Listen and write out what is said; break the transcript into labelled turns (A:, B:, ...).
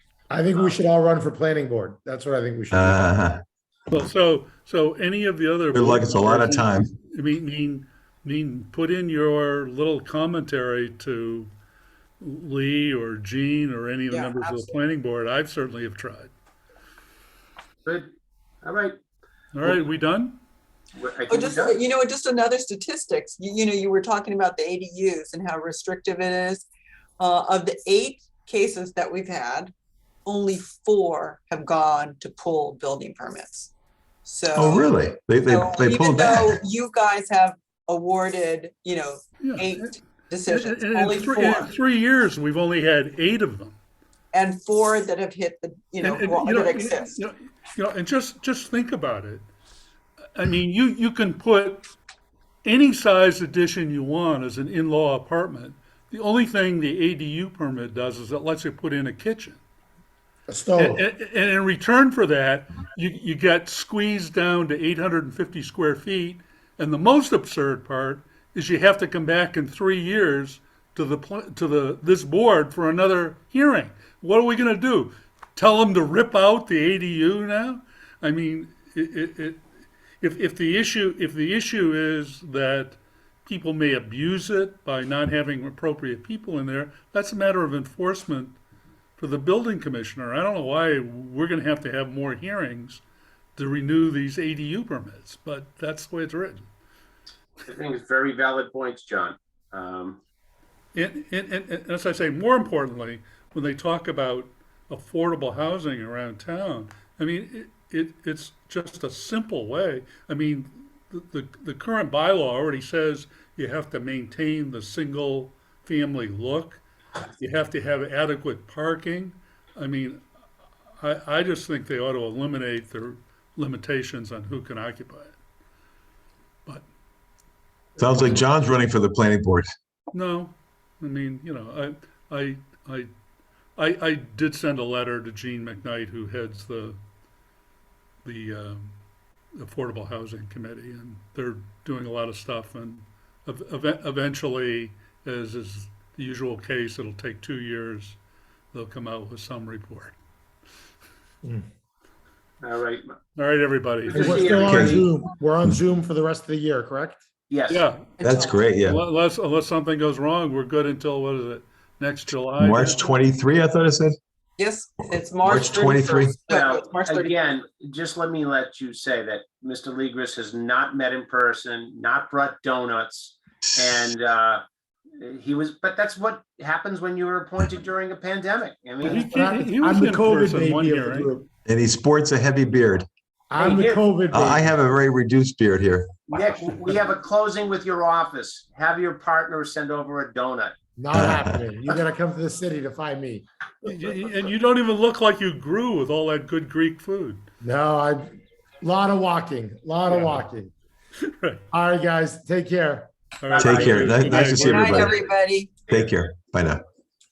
A: I think we should all run for planning board. That's what I think we should. do.
B: Uh,
C: Well, so, so any of the other.
B: Good luck, it's a lot of time.
C: I mean, mean, mean, put in your little commentary to Lee or Gene or any of the
D: Yeah,
C: members of the
D: absolutely.
C: planning board. I've certainly have tried.
E: Good. All right.
C: All right, we done?
E: Well, I
D: Oh,
E: think we
D: just,
E: got it.
D: you know, just another statistics, you, you know, you were talking about the ADUs and how restrictive it is. Uh, of the eight cases that we've had, only four have gone to pull building permits. So.
B: oh, really? They, they,
D: so
B: they
D: even
B: pulled
D: though
B: back.
D: You guys have awarded, you know,
C: Yeah. And-
D: eight
C: and-
D: decisions,
C: and
D: only
C: In three- in
D: four,
C: three years, we've only had eight of them.
D: and four that have hit the, you know,
C: And- and,
D: well,
C: you know,
D: that
C: you-
D: exist.
C: You know, you know, and just, just think about it. I mean, you, you can put any size addition you want as an in-law apartment. The only thing the ADU permit does is it lets you put in a kitchen.
A: A stove.
C: And, and in return for that, you, you get squeezed down to eight hundred and fifty square feet. And the most absurd part is you have to come back in three years to the, pl- to the, this board for another hearing. What are we gonna do? Tell them to rip out the ADU now? I mean, it, it, it, if, if the issue, if the issue is that people may abuse it by not having appropriate people in there, that's a matter of enforcement for the building commissioner. I don't know why we're gonna have to have more hearings to renew these ADU permits, but that's the way it's written.
E: I think it's very valid points, John. Um,
C: And, and, and, and as I say, more importantly, when they talk about affordable housing around town, I mean, it, it, it's just a simple way. I mean, the, the, the current bylaw already says you have to maintain the single family look. You have to have adequate parking. I mean, I, I just think they ought to eliminate their limitations on who can occupy it.
B: Sounds like John's running for the planning board.
C: No, I mean, you know, I, I, I, I, I did send a letter to Gene McKnight, who heads the, the, um, Affordable Housing Committee, and they're doing a lot of stuff, and ev- ev- eventually, as is the usual case, it'll take two years, they'll come out with some report.
E: all right.
C: All right, everybody.
A: And We're still on
B: Okay.
A: Zoom. We're on Zoom for the rest of the year, correct?
E: Yes.
C: Yeah,
B: That's great, yeah.
C: unless, unless something goes wrong, we're good until, what is it, next July?
B: March 23, I thought it said.
D: Yes, it's
B: March
D: March
B: 23.
D: 31st. No,
E: Now,
D: it's March 31st.
E: again, just let me let you say that Mr. Legris has not met in person, not brought donuts, and uh, he was, but that's what happens when you were appointed during a pandemic. I
C: He
E: mean,
A: But
C: can't- he- he
A: I'm
C: was
A: I'm the
C: in
A: COVID
C: person one
A: baby of
C: year,
A: the
C: right?
A: group.
B: And he sports a heavy beard.
A: I'm the
E: Hey,
A: COVID
B: Oh, I I
A: baby.
B: have a very reduced beard here.
E: Nick, we have a closing with your office. Have your partner send over a donut.
A: Not happening. You gotta come to the city to find me.
C: Y- y- And you don't even look like you grew with all that good Greek food.
A: No, I, lot of walking, lot of
C: Yeah.
A: walking.
C: Right.
A: All right, guys, take care.
C: All right,
B: Take
C: thank
B: care.
C: you.
B: Nice-
C: Good
B: nice
C: night.
B: to see
D: Good night,
B: everybody.
D: everybody.
B: Take care. Bye now.